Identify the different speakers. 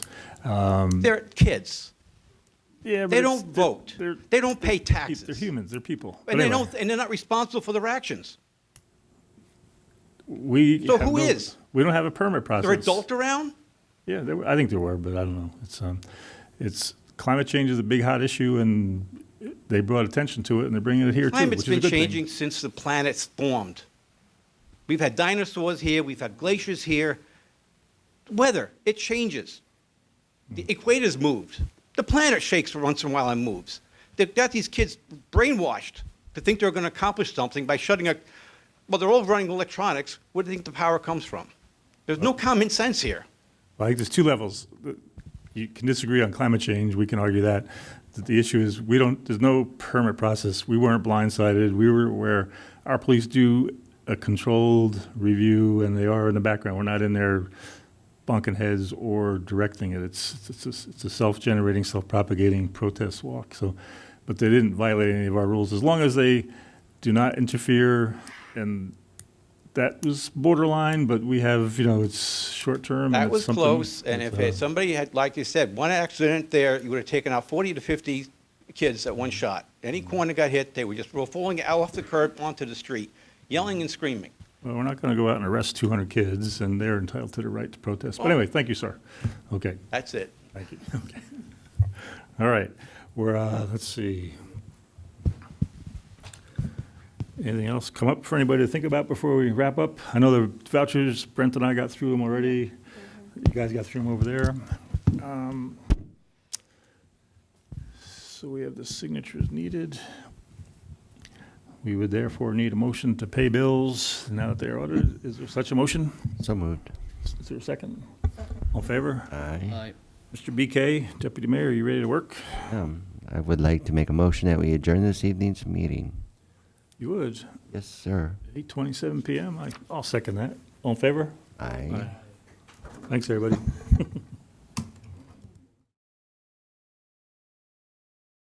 Speaker 1: They're kids.
Speaker 2: Yeah, but
Speaker 1: They
Speaker 2: it's-
Speaker 1: don't vote.
Speaker 2: They're,
Speaker 1: They don't pay taxes.
Speaker 2: they're humans. They're people. But
Speaker 1: And they
Speaker 2: anyway,
Speaker 1: don't, and they're not responsible for their actions.
Speaker 2: We
Speaker 1: So
Speaker 2: have
Speaker 1: who
Speaker 2: no-
Speaker 1: is?
Speaker 2: We don't have a permit process.
Speaker 1: They're adult around?
Speaker 2: Yeah, there were, I think there were, but I don't know. It's um, it's climate change is a big hot issue, and they brought attention to it, and they're bringing it here too,
Speaker 1: Climate's
Speaker 2: which is a
Speaker 1: been
Speaker 2: good thing.
Speaker 1: changing since the planet's formed. We've had dinosaurs here, we've had glaciers here. Weather, it changes. The
Speaker 2: Hmm.
Speaker 1: equator's moved. The planet shakes once in a while and moves. They've got these kids brainwashed to think they're going to accomplish something by shutting a. Well, they're all running electronics. Where do you think the power comes from? There's no common sense here.
Speaker 2: Well, I think there's two levels. You can disagree on climate change. We can argue that. The- The issue is we don't. There's no permit process. We weren't blindsided. We were aware. Our police do a controlled review, and they are in the background. We're not in there bonking heads or directing it. It's it's a, it's a self-generating, self-propagating protest walk. So, but they didn't violate any of our rules as long as they do not interfere and. That was borderline, but we have, you know, it's short term.
Speaker 1: That
Speaker 2: it's
Speaker 1: was
Speaker 2: something
Speaker 1: close, and
Speaker 2: that's,
Speaker 1: if
Speaker 2: uh,
Speaker 1: it- somebody had, like you said, one accident there, you would have taken out 40 to 50 kids at one shot. Any corner got hit, they were just roll- falling out off the curb onto the street, yelling and screaming.
Speaker 2: Well, we're not going to go out and arrest 200 kids, and they're entitled to the right to protest. But
Speaker 1: Well-
Speaker 2: anyway, thank you, sir. Okay,
Speaker 1: That's it.
Speaker 2: thank you. Okay. All right, we're, uh, let's see. Anything else come up for anybody to think about before we wrap up? I know the vouchers, Brent and I got through them already. You guys got through them over there. Um, So we have the signatures needed. We would therefore need a motion to pay bills now that they're ordered. Is there such a motion?
Speaker 3: So moved.
Speaker 2: Is there a second? All in favor?
Speaker 3: Aye.
Speaker 2: Mr. BK, Deputy Mayor, are you ready to work?
Speaker 3: Um, I would like to make a motion that we adjourn this evening's meeting.
Speaker 2: You would.
Speaker 3: Yes, sir.
Speaker 2: 8:27 PM, I- I'll second that. All in favor?
Speaker 3: Aye.
Speaker 2: Thanks, everybody.